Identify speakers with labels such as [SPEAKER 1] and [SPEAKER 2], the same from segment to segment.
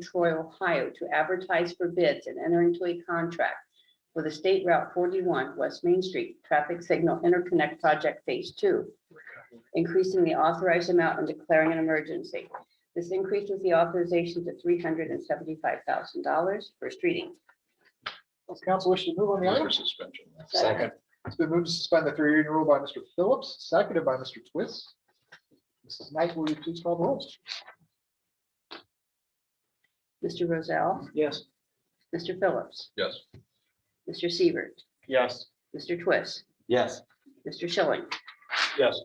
[SPEAKER 1] Troy, Ohio to advertise for bids and enter into a contract for the State Route 41 West Main Street Traffic Signal Interconnect Project Phase 2, increasing the authorized amount and declaring an emergency. This increases the authorization to $375,000 first reading.
[SPEAKER 2] Does council wish to move on the
[SPEAKER 3] Move for
[SPEAKER 2] item?
[SPEAKER 3] suspension.
[SPEAKER 1] Second.
[SPEAKER 2] It's been moved to suspend the three reading rule by Mr. Phillips, seconded by Mr. Twist. Mrs. Knight, will you please call the rolls?
[SPEAKER 1] Mr. Rozell,
[SPEAKER 2] Yes.
[SPEAKER 1] Mr. Phillips,
[SPEAKER 3] Yes.
[SPEAKER 1] Mr. Seaver,
[SPEAKER 2] Yes.
[SPEAKER 1] Mr. Twist,
[SPEAKER 4] Yes.
[SPEAKER 1] Mr. Schilling,
[SPEAKER 2] Yes.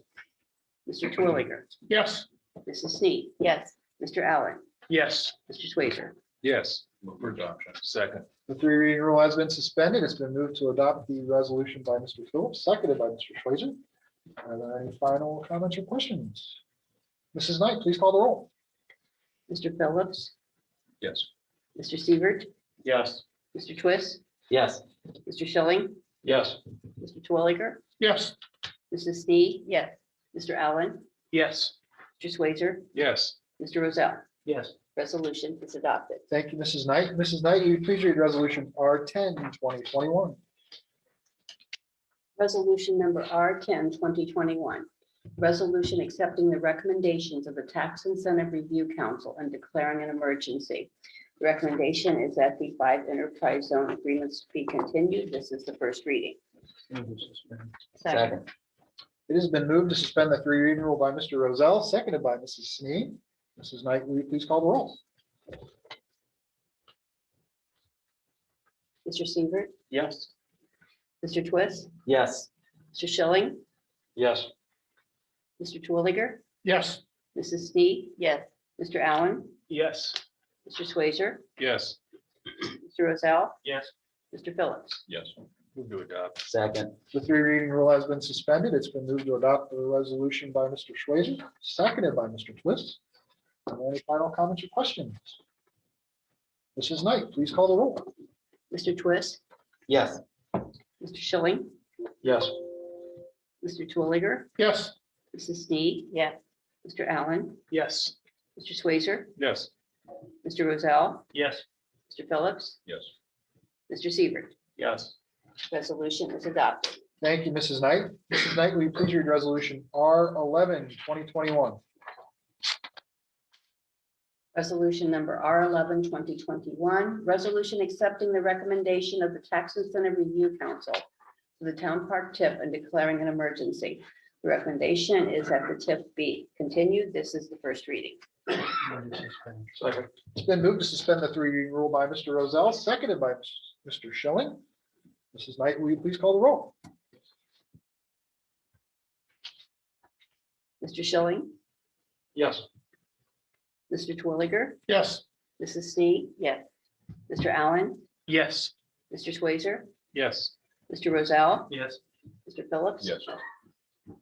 [SPEAKER 1] Mr. Twilliger,
[SPEAKER 2] Yes.
[SPEAKER 1] Mrs. Snead. Yes. Mr. Allen,
[SPEAKER 2] Yes.
[SPEAKER 1] Mr. Swazer.
[SPEAKER 3] Yes. Move for adoption. Second.
[SPEAKER 2] The three reading rule has been suspended. It's been moved to adopt the resolution by Mr. Phillips, seconded by Mr. Schweizer. Are there any final comments or questions? Mrs. Knight, please call the roll.
[SPEAKER 1] Mr. Phillips,
[SPEAKER 3] Yes.
[SPEAKER 1] Mr. Seaver,
[SPEAKER 2] Yes.
[SPEAKER 1] Mr. Twist,
[SPEAKER 4] Yes.
[SPEAKER 1] Mr. Schilling,
[SPEAKER 2] Yes.
[SPEAKER 1] Mr. Twilliger,
[SPEAKER 2] Yes.
[SPEAKER 1] Mrs. Snead. Yes. Mr. Allen,
[SPEAKER 2] Yes.
[SPEAKER 1] Mr. Swazer,
[SPEAKER 3] Yes.
[SPEAKER 1] Mr. Rozell.
[SPEAKER 2] Yes.
[SPEAKER 1] Resolution is adopted.
[SPEAKER 2] Thank you, Mrs. Knight. Mrs. Knight, will you please read resolution R 10 2021.
[SPEAKER 1] Resolution number R 10 2021. Resolution accepting the recommendations of the Tax Incentive Review Council and declaring an emergency. The Recommendation is that the five enterprise zone agreements be continued. This is the first reading.
[SPEAKER 4] Second.
[SPEAKER 2] It has been moved to suspend the three reading rule by Mr. Rozell, seconded by Mrs. Snead. Mrs. Knight, will you please call the roll?
[SPEAKER 1] Mr. Seaver,
[SPEAKER 2] Yes.
[SPEAKER 1] Mr. Twist,
[SPEAKER 4] Yes.
[SPEAKER 1] Mr. Schilling,
[SPEAKER 2] Yes.
[SPEAKER 1] Mr. Twilliger,
[SPEAKER 2] Yes.
[SPEAKER 1] Mrs. Snead. Yes. Mr. Allen,
[SPEAKER 2] Yes.
[SPEAKER 1] Mr. Swazer,
[SPEAKER 3] Yes.
[SPEAKER 1] Mr. Rozell,
[SPEAKER 2] Yes.
[SPEAKER 1] Mr. Phillips.
[SPEAKER 3] Yes. Move to adopt.
[SPEAKER 4] Second.
[SPEAKER 2] The three reading rule has been suspended. It's been moved to adopt the resolution by Mr. Schweizer, seconded by Mr. Twist. Are there Any final comments or questions? Mrs. Knight, please call the roll.
[SPEAKER 1] Mr. Twist,
[SPEAKER 4] Yes.
[SPEAKER 1] Mr. Schilling,
[SPEAKER 2] Yes.
[SPEAKER 1] Mr. Twilliger,
[SPEAKER 2] Yes.
[SPEAKER 1] Mrs. Snead. Yes. Mr. Allen,
[SPEAKER 2] Yes.
[SPEAKER 1] Mr. Swazer,
[SPEAKER 3] Yes.
[SPEAKER 1] Mr. Rozell,
[SPEAKER 2] Yes.
[SPEAKER 1] Mr. Phillips,
[SPEAKER 3] Yes.
[SPEAKER 1] Mr. Seaver.
[SPEAKER 2] Yes.
[SPEAKER 1] Resolution is adopted.
[SPEAKER 2] Thank you, Mrs. Knight. Mrs. Knight, will you please read resolution R 11 2021?
[SPEAKER 1] Resolution number R 11 2021. resolution accepting the recommendation of the Tax Incentive Review Council for the town park tip and declaring an emergency. The recommendation is that the tip be continued. This is the first reading.
[SPEAKER 2] It's been moved to suspend the three reading rule by Mr. Rozell, seconded by Mr. Schilling. Mrs. Knight, will you please call the roll?
[SPEAKER 1] Mr. Schilling,
[SPEAKER 2] Yes.
[SPEAKER 1] Mr. Twilliger,
[SPEAKER 2] Yes.
[SPEAKER 1] Mrs. Snead. Yes. Mr. Allen,
[SPEAKER 2] Yes.
[SPEAKER 1] Mr. Swazer,
[SPEAKER 2] Yes.
[SPEAKER 1] Mr. Rozell,
[SPEAKER 2] Yes.
[SPEAKER 1] Mr. Phillips.
[SPEAKER 3] Yes.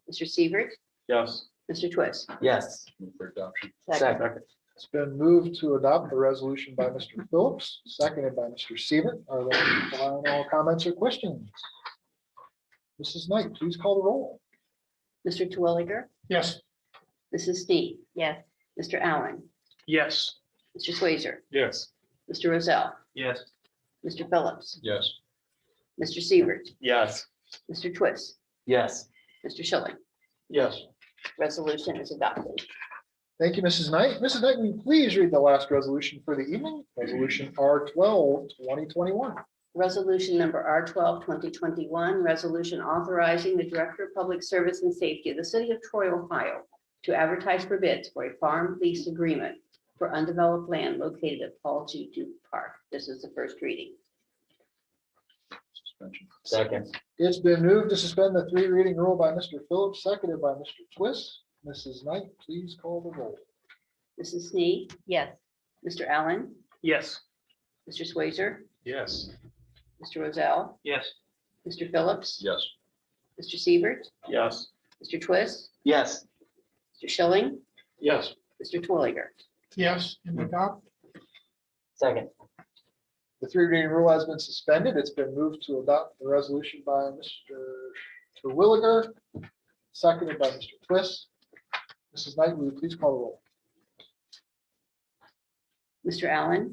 [SPEAKER 1] Mr. Seaver,
[SPEAKER 2] Yes.
[SPEAKER 1] Mr. Twist.
[SPEAKER 4] Yes.
[SPEAKER 3] Move for adoption.
[SPEAKER 4] Second.
[SPEAKER 2] It's been moved to adopt the resolution by Mr. Phillips, seconded by Mr. Seaver. Are there any final comments or questions? Mrs. Knight, please call the roll.
[SPEAKER 1] Mr. Twilliger,
[SPEAKER 2] Yes.
[SPEAKER 1] Mrs. Snead. Yes. Mr. Allen,
[SPEAKER 2] Yes.
[SPEAKER 1] Mr. Swazer,
[SPEAKER 3] Yes.
[SPEAKER 1] Mr. Rozell,
[SPEAKER 2] Yes.
[SPEAKER 1] Mr. Phillips,
[SPEAKER 3] Yes.
[SPEAKER 1] Mr. Seaver,
[SPEAKER 2] Yes.
[SPEAKER 1] Mr. Twist,
[SPEAKER 4] Yes.
[SPEAKER 1] Mr. Schilling.
[SPEAKER 2] Yes.
[SPEAKER 1] Resolution is adopted.
[SPEAKER 2] Thank you, Mrs. Knight. Mrs. Knight, will you please read the last resolution for the evening? Resolution R 12 2021.
[SPEAKER 1] Resolution number R 12 2021. resolution authorizing the Director of Public Service and Safety of the City of Troy, Ohio to advertise for bids for a farm lease agreement for undeveloped land located at Paul G. Duke Park. This is the first reading.
[SPEAKER 3] Suspension.
[SPEAKER 4] Second.
[SPEAKER 2] It's been moved to suspend the three reading rule by Mr. Phillips, seconded by Mr. Twist. Mrs. Knight, please call the roll.
[SPEAKER 1] Mrs. Snead. Yes. Mr. Allen,
[SPEAKER 2] Yes.
[SPEAKER 1] Mr. Swazer,
[SPEAKER 3] Yes.
[SPEAKER 1] Mr. Rozell,
[SPEAKER 2] Yes.
[SPEAKER 1] Mr. Phillips,
[SPEAKER 3] Yes.
[SPEAKER 1] Mr. Siebert,
[SPEAKER 2] Yes.
[SPEAKER 1] Mr. Twist,
[SPEAKER 4] Yes.
[SPEAKER 1] Mr. Schilling,
[SPEAKER 2] Yes.
[SPEAKER 1] Mr. Twilliger.
[SPEAKER 2] Yes, and adopt.
[SPEAKER 4] Second.
[SPEAKER 2] The three reading rule has been suspended. It's been moved to adopt the resolution by Mr. Terwilliger, seconded by Mr. Twist. Mrs. Knight, will you please call the roll?
[SPEAKER 1] Mr. Allen?